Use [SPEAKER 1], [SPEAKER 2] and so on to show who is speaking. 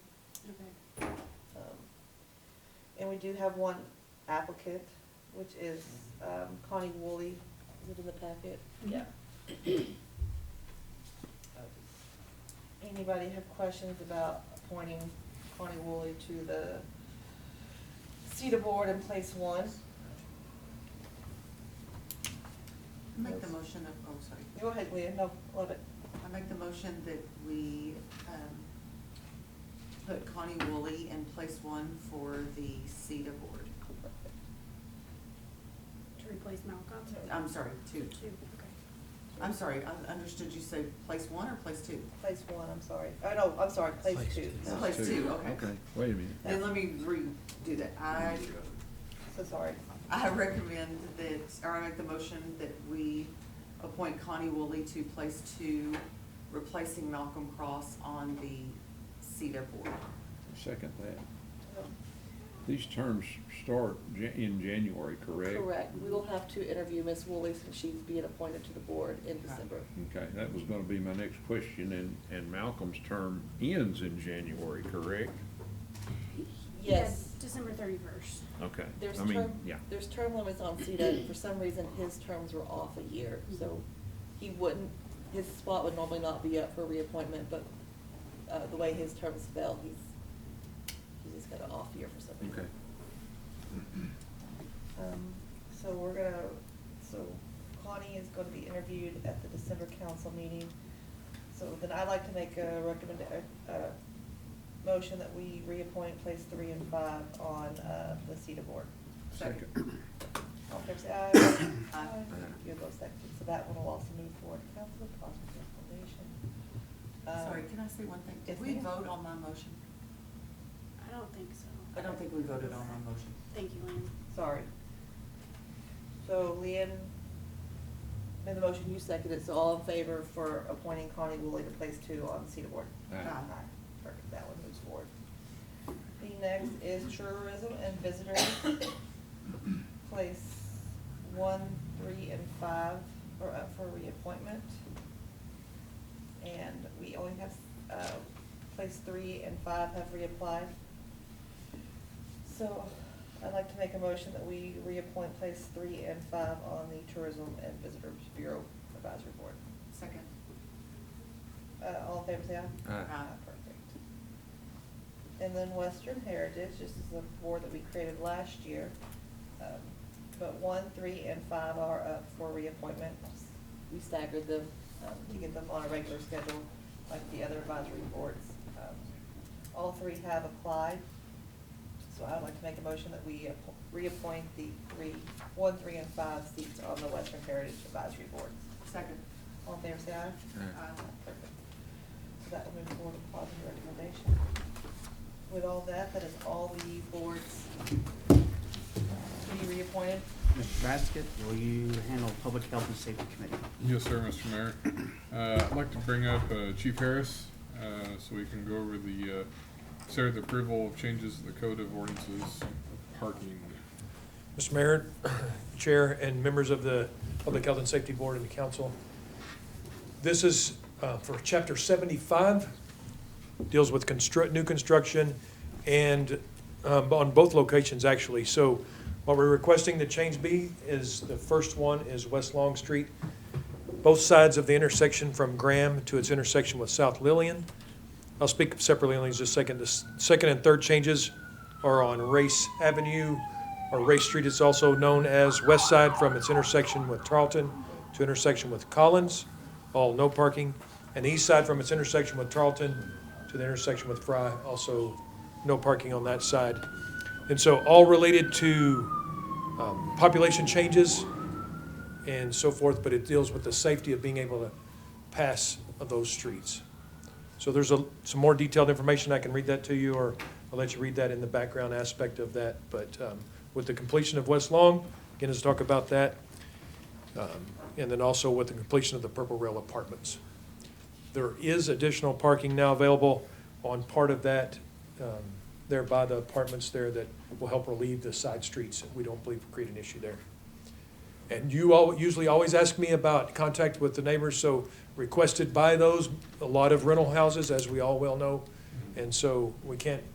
[SPEAKER 1] Um, we do have one applicant, which is um, Connie Woolley. Is it in the packet? Yeah. Anybody have questions about appointing Connie Woolley to the CETA board in place one?
[SPEAKER 2] Make the motion of, oh, sorry.
[SPEAKER 1] Go ahead, Leah, no, love it.
[SPEAKER 2] I make the motion that we um, put Connie Woolley in place one for the CETA board.
[SPEAKER 3] To replace Malcolm?
[SPEAKER 2] I'm sorry, two.
[SPEAKER 3] Two, okay.
[SPEAKER 2] I'm sorry, I understood you say place one or place two?
[SPEAKER 1] Place one, I'm sorry. Oh, no, I'm sorry, place
[SPEAKER 4] Place
[SPEAKER 1] two.
[SPEAKER 4] two.
[SPEAKER 2] Place two, okay.
[SPEAKER 4] Wait a minute.
[SPEAKER 2] Then let me redo that. I,
[SPEAKER 1] So sorry.
[SPEAKER 2] I recommend that, or I make the motion that we appoint Connie Woolley to place two, replacing Malcolm Cross on the CETA board.
[SPEAKER 5] Second that. These terms start Ja- in January, correct?
[SPEAKER 1] Correct. We will have to interview Ms. Woolley since she's being appointed to the board in December.
[SPEAKER 5] Okay, that was gonna be my next question, and, and Malcolm's term ends in January, correct?
[SPEAKER 1] Yes.
[SPEAKER 3] Yeah, December thirty-first.
[SPEAKER 5] Okay,
[SPEAKER 1] There's
[SPEAKER 5] I mean,
[SPEAKER 1] term,
[SPEAKER 5] yeah,
[SPEAKER 1] there's term limits on CETA. For some reason, his terms were off a year, so he wouldn't, his spot would normally not be up for reappointment, but uh, the way his terms fell, he's, he just got an off year for some reason.
[SPEAKER 5] okay.
[SPEAKER 1] Um, so we're gonna, so Connie is gonna be interviewed at the December council meeting. So then I'd like to make a recommend, a, a motion that we reappoint place three and five on, uh, the CETA board.
[SPEAKER 2] Second.
[SPEAKER 1] All in favor, say aye.
[SPEAKER 2] Aye.
[SPEAKER 1] You go second, so that one will also move forward to council, positive recommendation. Um,
[SPEAKER 2] Sorry, can I say one thing?
[SPEAKER 1] yes,
[SPEAKER 2] Did we
[SPEAKER 1] ma'am.
[SPEAKER 2] vote on my motion?
[SPEAKER 3] I don't think
[SPEAKER 2] I
[SPEAKER 3] so.
[SPEAKER 2] don't think we voted on my motion.
[SPEAKER 3] Thank you, Lynn.
[SPEAKER 1] Sorry. So Leanne made the motion, you seconded, so all in favor for appointing Connie Woolley to place two on the CETA board?
[SPEAKER 5] Aye.
[SPEAKER 2] Aye.
[SPEAKER 1] Perfect, that one moves forward. The next is tourism and visitors, place one, three, and five are up for reappointment. And we only have, uh, place three and five have reapplied. So I'd like to make a motion that we reappoint place three and five on the Tourism and Visitors Bureau Advisory Board.
[SPEAKER 2] Second.
[SPEAKER 1] Uh, all in favor, say aye.
[SPEAKER 4] Aye.
[SPEAKER 2] Aye.
[SPEAKER 1] Perfect. And then Western Heritage, this is the board that we created last year. Um, But one, three, and five are up for reappointment. We staggered them um, to get them on a regular schedule, like the other advisory boards. Um, All three have applied, so I'd like to make a motion that we appo- reappoint the three, one, three, and five seats on the Western Heritage Advisory Board.
[SPEAKER 2] Second.
[SPEAKER 1] All in favor, say aye.
[SPEAKER 2] Aye.
[SPEAKER 1] Perfect. Um, So that will move forward to positive recommendation. With all that, that is all the boards to be reappointed.
[SPEAKER 6] Mr. Basket, will you handle Public Health and Safety Committee?
[SPEAKER 7] Yes, sir, Mr. Mayor. Uh, I'd like to bring up uh, Chief Harris, uh, so we can go over the, uh, consider the approval of changes to the code of ordinances, parking.
[SPEAKER 8] Mr. Mayor, Chair, and members of the Public Health and Safety Board and the council. This is uh, for Chapter 75, deals with construct, new construction, and um, on both locations, actually. So what we're requesting the change be is, the first one is West Long Street, both sides of the intersection from Graham to its intersection with South Lillian. I'll speak separately on these just a second. The s- second and third changes are on Race Avenue, or Race Street, it's also known as West Side, from its intersection with Tarleton to intersection with Collins, all no parking. And the East Side from its intersection with Tarleton to the intersection with Fry, also no parking on that side. And so all related to um, population changes and so forth, but it deals with the safety of being able to pass of those streets. So there's a, some more detailed information, I can read that to you, or I'll let you read that in the background aspect of that. But um, with the completion of West Long, again, let's talk about that. Um, And then also with the completion of the Purple Rail Apartments. There is additional parking now available on part of that, um, there by the apartments there that will help relieve the side streets. We don't believe create an issue there. And you all, usually always ask me about contact with the neighbors, so requested by those, a lot of rental houses, as we all well know. And so we can't